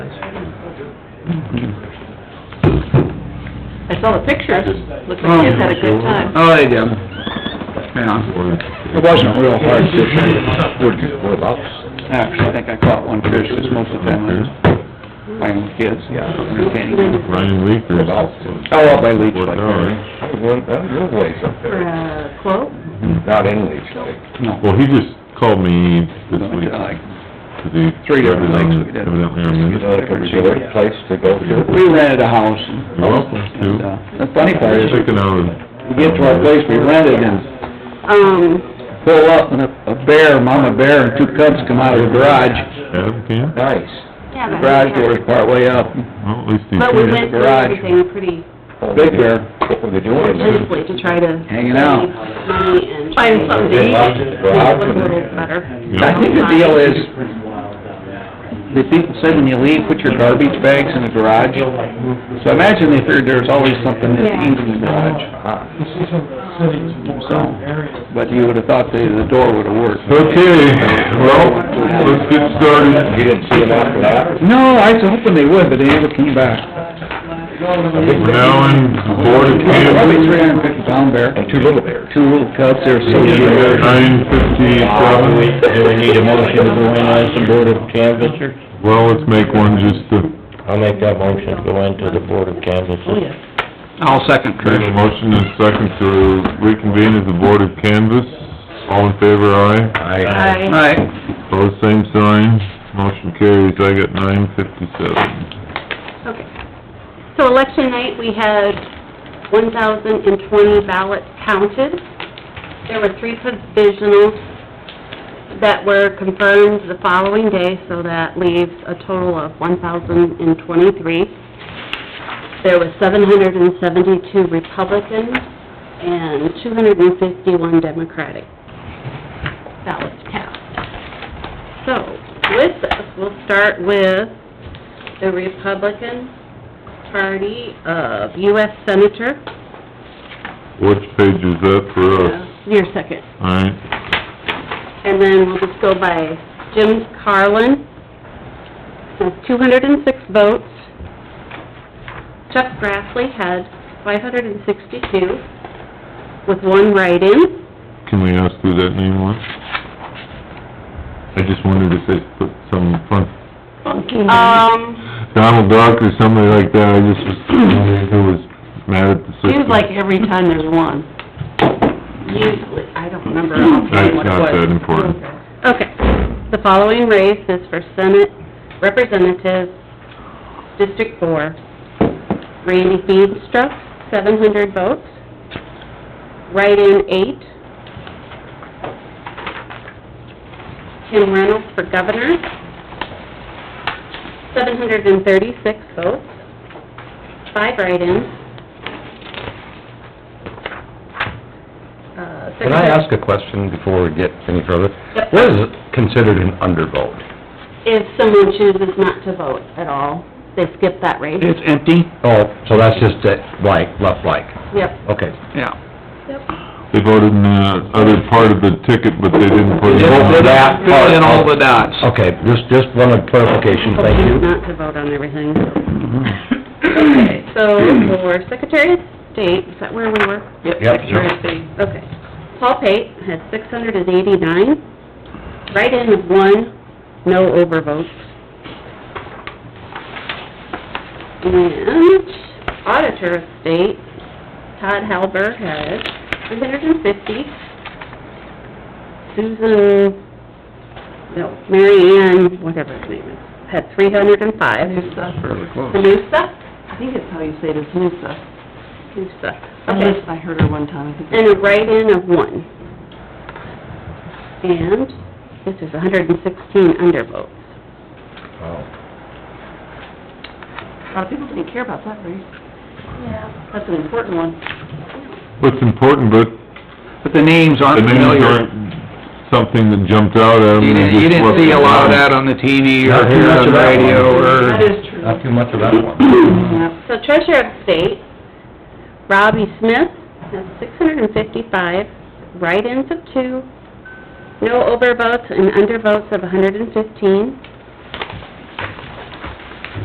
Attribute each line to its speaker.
Speaker 1: I saw the pictures, looks like kids had a good time.
Speaker 2: Oh, they did. Yeah. It wasn't real hard fishing.
Speaker 3: What about?
Speaker 2: Actually, I think I caught one fish, because most of the time I was playing with kids, yeah, entertaining them.
Speaker 3: Ryan Leaker's.
Speaker 2: Oh, up by Leech Lake.
Speaker 3: Your ways up
Speaker 1: For
Speaker 3: there, Mm-hmm.
Speaker 1: a quote?
Speaker 3: not in Leech Lake.
Speaker 2: No.
Speaker 4: Well, he just called me this
Speaker 2: Something
Speaker 4: week,
Speaker 2: like-
Speaker 4: 'cause he...
Speaker 2: Three different things we did.
Speaker 4: Evidently, I'm in
Speaker 3: You know, like a resort place to go to.
Speaker 2: We rented a house. and-
Speaker 4: You're welcome to.
Speaker 2: and, uh, The funny part is,
Speaker 4: Checking out... uh,
Speaker 2: we get to our place we rented and
Speaker 1: Um,
Speaker 2: pull up, and a a bear, mama bear and two cubs come out of the garage.
Speaker 4: Adam can?
Speaker 3: Nice.
Speaker 5: Yeah,
Speaker 2: The
Speaker 5: but.
Speaker 2: garage door is partway up,
Speaker 4: Well, at least he...
Speaker 5: But we
Speaker 4: did.
Speaker 5: went through
Speaker 2: garage.
Speaker 5: everything pretty
Speaker 2: big bear,
Speaker 3: What were they doing in there?
Speaker 5: intensely to try to.
Speaker 2: hanging out.
Speaker 5: save Money and. try
Speaker 1: find
Speaker 5: to
Speaker 1: something
Speaker 3: They
Speaker 1: to eat.
Speaker 3: locked it, go out
Speaker 5: Look what is
Speaker 3: and-
Speaker 5: better.
Speaker 2: I
Speaker 4: Yeah.
Speaker 2: think the deal is, the people said when you leave, put your garbage bags in the garage. So I imagine they figured there's always something to eat in the garage. So, but you would've thought the, the door would've worked.
Speaker 4: Okay, well, let's get started.
Speaker 3: You didn't see them after that?
Speaker 2: No, I was hoping they would, but they never came back.
Speaker 4: We're now in Board of
Speaker 2: Probably three
Speaker 4: Camp,
Speaker 2: hundred and fifty pound bear,
Speaker 3: And two little bears.
Speaker 2: two little cubs, they were so big.
Speaker 4: nine fifty-seven.
Speaker 6: Do we need a motion to go in as the Board of Canvassers?
Speaker 4: Well, let's make one just to,
Speaker 6: I'll make that motion, to go into the Board of Canvassers.
Speaker 2: I'll second
Speaker 4: make a
Speaker 2: Trish.
Speaker 4: motion and second to reconvene as the Board of Canvas. All in favor, aye.
Speaker 3: Aye.
Speaker 1: I,
Speaker 2: Right,
Speaker 4: Opposed, same sign. Motion carries. I got nine fifty-seven.
Speaker 5: Okay. So election night, we had one thousand and twenty ballots counted. There were three provisionals that were confirmed the following day, so that leaves a total of one thousand and twenty-three. There were seven hundred and seventy-two Republicans and two hundred and fifty-one Democratic ballots cast. So, with this, we'll start with the Republican Party of U.S. Senator.
Speaker 4: Which page is that for us?
Speaker 5: Your second.
Speaker 4: Alright,
Speaker 5: And then we'll just go by Jim Carlin, has two hundred and six votes. Chuck Grassley had five hundred and sixty-two, with one write-in.
Speaker 4: can we ask who that name was? I just wondered if they put some fun,
Speaker 5: Um,
Speaker 4: Donald Duck or somebody like that. I just was wondering who was mad at the system.
Speaker 5: seems like every time there's one. Usually, I don't remember offhand
Speaker 4: That's
Speaker 5: what it
Speaker 4: not
Speaker 5: was.
Speaker 4: that important.
Speaker 5: Okay, the following race is for Senate Representative, District Four. Randy Feenstra, seven hundred votes. Write-in, eight. Tim Reynolds for Governor, seven hundred and thirty-six votes. Five write-ins. Uh,
Speaker 3: Can I ask a question before we get any further?
Speaker 5: Yep.
Speaker 3: What is considered an undervote?
Speaker 5: If someone chooses not to vote at all, they skip that race?
Speaker 2: it's empty,
Speaker 3: Oh, so that's just a blank, left blank,
Speaker 5: Yep.
Speaker 3: okay.
Speaker 2: yeah.
Speaker 4: They voted in the other part of the ticket, but they didn't put it
Speaker 3: Vote for
Speaker 4: on.
Speaker 3: that part.
Speaker 2: Fill in all the dots.
Speaker 3: Okay, just, just one clarification, thank you. Mm-hmm.
Speaker 5: Choose Not to vote on everything. Okay, so for Secretary of State, is that where we were?
Speaker 3: Yep.
Speaker 5: Okay. Paul Pate had six hundred and eighty-nine, write-in of one, no overvotes. And Auditor of State, Todd Halber had three hundred and fifty. Susan, no, Mary Ann, whatever her name is, had three hundred and five.
Speaker 2: Fairly close.
Speaker 5: Sanusa?
Speaker 1: I think it's how you say it, is Noosa.
Speaker 5: Sanusa. Okay.
Speaker 1: Unless I heard her one time, I think.
Speaker 5: And a write-in of one. And this is hundred and sixteen undervotes.
Speaker 1: A lot of people didn't care about that race. Yeah. That's an important one.
Speaker 4: What's important, but
Speaker 2: But the names
Speaker 4: the
Speaker 2: aren't
Speaker 4: names
Speaker 2: familiar.
Speaker 4: aren't something that jumped out at them.
Speaker 2: You didn't, you didn't see a lot of that on the TV or
Speaker 3: Not too
Speaker 2: hear it on
Speaker 3: much of
Speaker 2: the
Speaker 3: that one.
Speaker 2: radio or...
Speaker 1: That is true.
Speaker 3: Not too much of that one.
Speaker 5: So Treasurer of State, Robbie Smith, has six hundred and fifty-five, write-ins of two, no overvotes and undervotes of hundred and fifteen.